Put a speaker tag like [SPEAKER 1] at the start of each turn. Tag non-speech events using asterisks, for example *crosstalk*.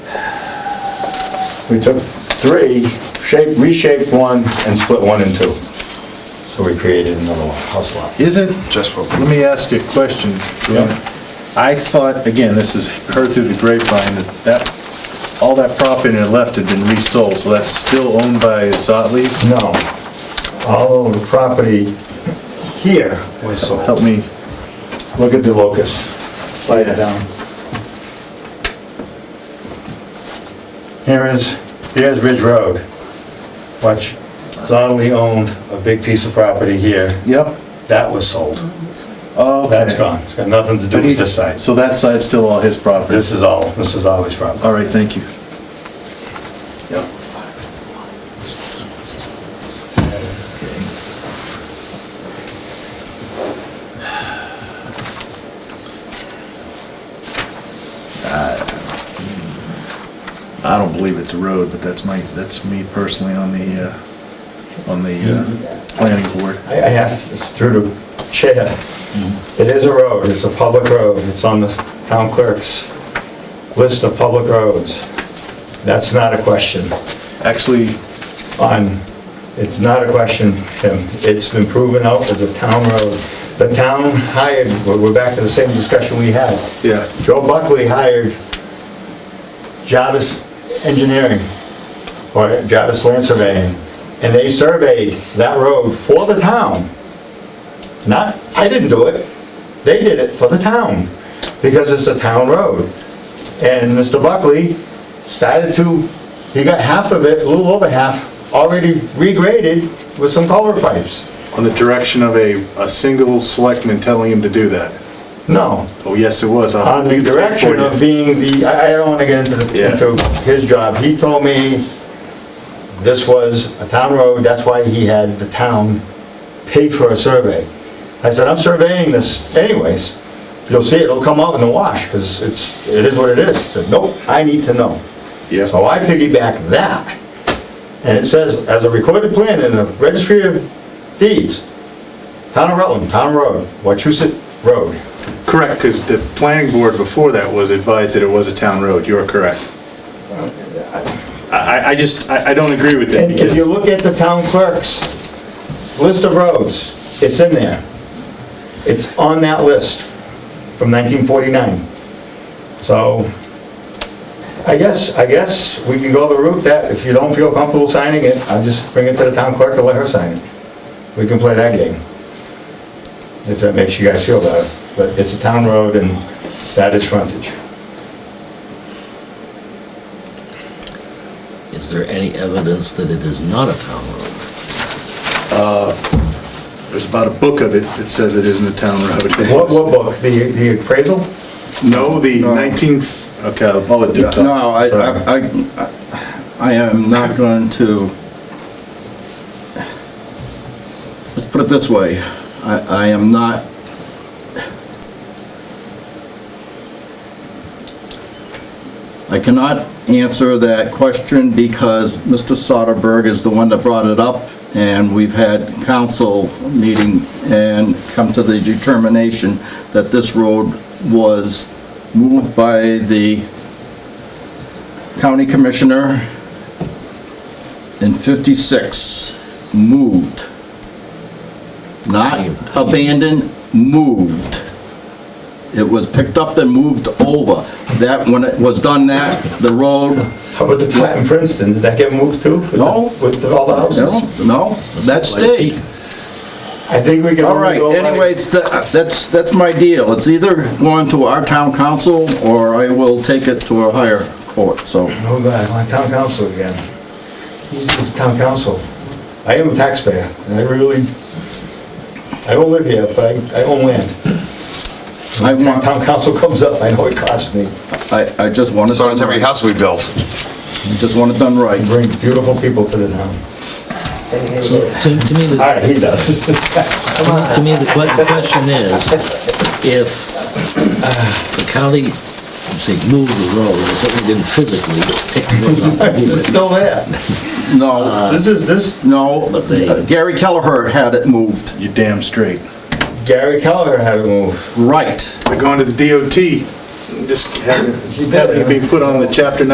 [SPEAKER 1] We took three, shaped, reshaped one, and split one in two. So we created another lot- house lot.
[SPEAKER 2] Isn't,
[SPEAKER 3] Just what we-
[SPEAKER 2] let me ask you a question. Dan.
[SPEAKER 1] Yeah.
[SPEAKER 2] I thought, again, this is heard through the grapevine, that that, all that property that left had been resold, so that's still owned by Zottley's?
[SPEAKER 1] No, all of the property here was sold.
[SPEAKER 2] Help me,
[SPEAKER 1] Look at the locust, slide it down. Here is, here's Ridge Road, which Donnelly owned a big piece of property here.
[SPEAKER 2] yep.
[SPEAKER 1] That was sold.
[SPEAKER 2] Oh,
[SPEAKER 1] That's gone. It's got nothing to do with this side.
[SPEAKER 2] So that side's still all his property?
[SPEAKER 1] This is all, this is always property.
[SPEAKER 2] All right, thank you. I don't believe it's a road, but that's my, that's me personally on the, uh, on the uh, planning board.
[SPEAKER 1] I I have, it's through the chair. It is a road, it's a public road, it's on the town clerk's list of public roads. That's not a question
[SPEAKER 2] Actually,
[SPEAKER 1] on, it's not a question, Tim. It's been proven out as a town road. The town hired, we're we're back to the same discussion we had.
[SPEAKER 2] Yeah.
[SPEAKER 1] Joe Buckley hired Jarvis Engineering, or Jarvis Land Surveying, and they surveyed that road for the town. Not, I didn't do it, they did it for the town, because it's a town road. And Mr. Buckley started to, he got half of it, a little over half, already regraded with some color pipes.
[SPEAKER 2] on the direction of a, a single selectman telling him to do that.
[SPEAKER 1] No,
[SPEAKER 2] Oh, yes, it was. I'll
[SPEAKER 1] on the
[SPEAKER 2] read the tape for
[SPEAKER 1] direction
[SPEAKER 2] you.
[SPEAKER 1] of being the, I I don't want to get into, the-
[SPEAKER 2] Yeah.
[SPEAKER 1] into his job. He told me this was a town road, that's why he had the town pay for a survey. I said, I'm surveying this anyways. You'll see, it, it'll come out in the wash, because it's, it is what it is. He said, nope, I need to know.
[SPEAKER 2] Yeah.
[SPEAKER 1] So I piggyback that, and it says, as a recorded plan in the registry of deeds, town of Rutland, town road, Wachusett Road.
[SPEAKER 2] Correct, because the planning board before that was advised that it was a town road, you are correct. I, I- I just, I I don't agree with that
[SPEAKER 1] And if you
[SPEAKER 2] because,
[SPEAKER 1] look at the town clerk's list of roads, it's in there. It's on that list from 1949. So I guess, I guess we can go the route that if you don't feel comfortable signing it, I'll just bring it to the town clerk and let her sign it. We can play that game. If that makes you guys feel better. But it's a town road and that is frontage.
[SPEAKER 4] Is there any evidence that it is not a town road?
[SPEAKER 5] There's about a book of it that says it isn't a town
[SPEAKER 1] What,
[SPEAKER 5] road.
[SPEAKER 1] what book? The the appraisal?
[SPEAKER 5] No, the 19, okay, I'll let you
[SPEAKER 3] No,
[SPEAKER 5] talk.
[SPEAKER 3] I, I, I- I am not going to, let's put it this way, I, I am not, I cannot answer that question because Mr. Soderberg is the one that brought it up, and we've had council meeting and come to the determination that this road was moved by the county commissioner in 56, moved. Not abandoned, moved. It was picked up and moved over. That, when it was done that, the road,
[SPEAKER 1] How about the flat in Princeton, did that get moved too? With the-
[SPEAKER 3] No.
[SPEAKER 1] With all the
[SPEAKER 3] no,
[SPEAKER 1] houses?
[SPEAKER 3] no, that stayed.
[SPEAKER 1] I think we can
[SPEAKER 3] All
[SPEAKER 1] only
[SPEAKER 3] right,
[SPEAKER 1] go by...
[SPEAKER 3] anyways, tha- that's, that's my deal. It's either going to our town council, or I will take it to a higher court, so.
[SPEAKER 1] Oh, God, my town council again. Who's the town council? I am a taxpayer, and I really, I don't live here, but I, I own land.
[SPEAKER 3] I
[SPEAKER 1] When
[SPEAKER 3] want,
[SPEAKER 1] town council comes up, I know it costs me.
[SPEAKER 3] I, I just want it
[SPEAKER 5] So
[SPEAKER 3] done
[SPEAKER 5] does every
[SPEAKER 3] right.
[SPEAKER 5] house we built.
[SPEAKER 3] I Just want it done right.
[SPEAKER 1] I bring beautiful people to the town.
[SPEAKER 4] So to to me,
[SPEAKER 1] All
[SPEAKER 4] the,
[SPEAKER 1] right, he does. *laughs*
[SPEAKER 4] to me, the que- the question is, if uh, the county, you say, moved the road, it certainly didn't physically pick the road up. and move
[SPEAKER 1] It's
[SPEAKER 4] it.
[SPEAKER 1] still there.
[SPEAKER 3] No,
[SPEAKER 1] This is, this,
[SPEAKER 3] no,
[SPEAKER 4] Uh, But they-
[SPEAKER 3] Gary Kelleher had it moved.
[SPEAKER 5] You're damn straight.
[SPEAKER 1] Gary Keller had to move.
[SPEAKER 3] Right.
[SPEAKER 5] They're going to the DOT, just having
[SPEAKER 1] He did.
[SPEAKER 5] having to be put on the chapter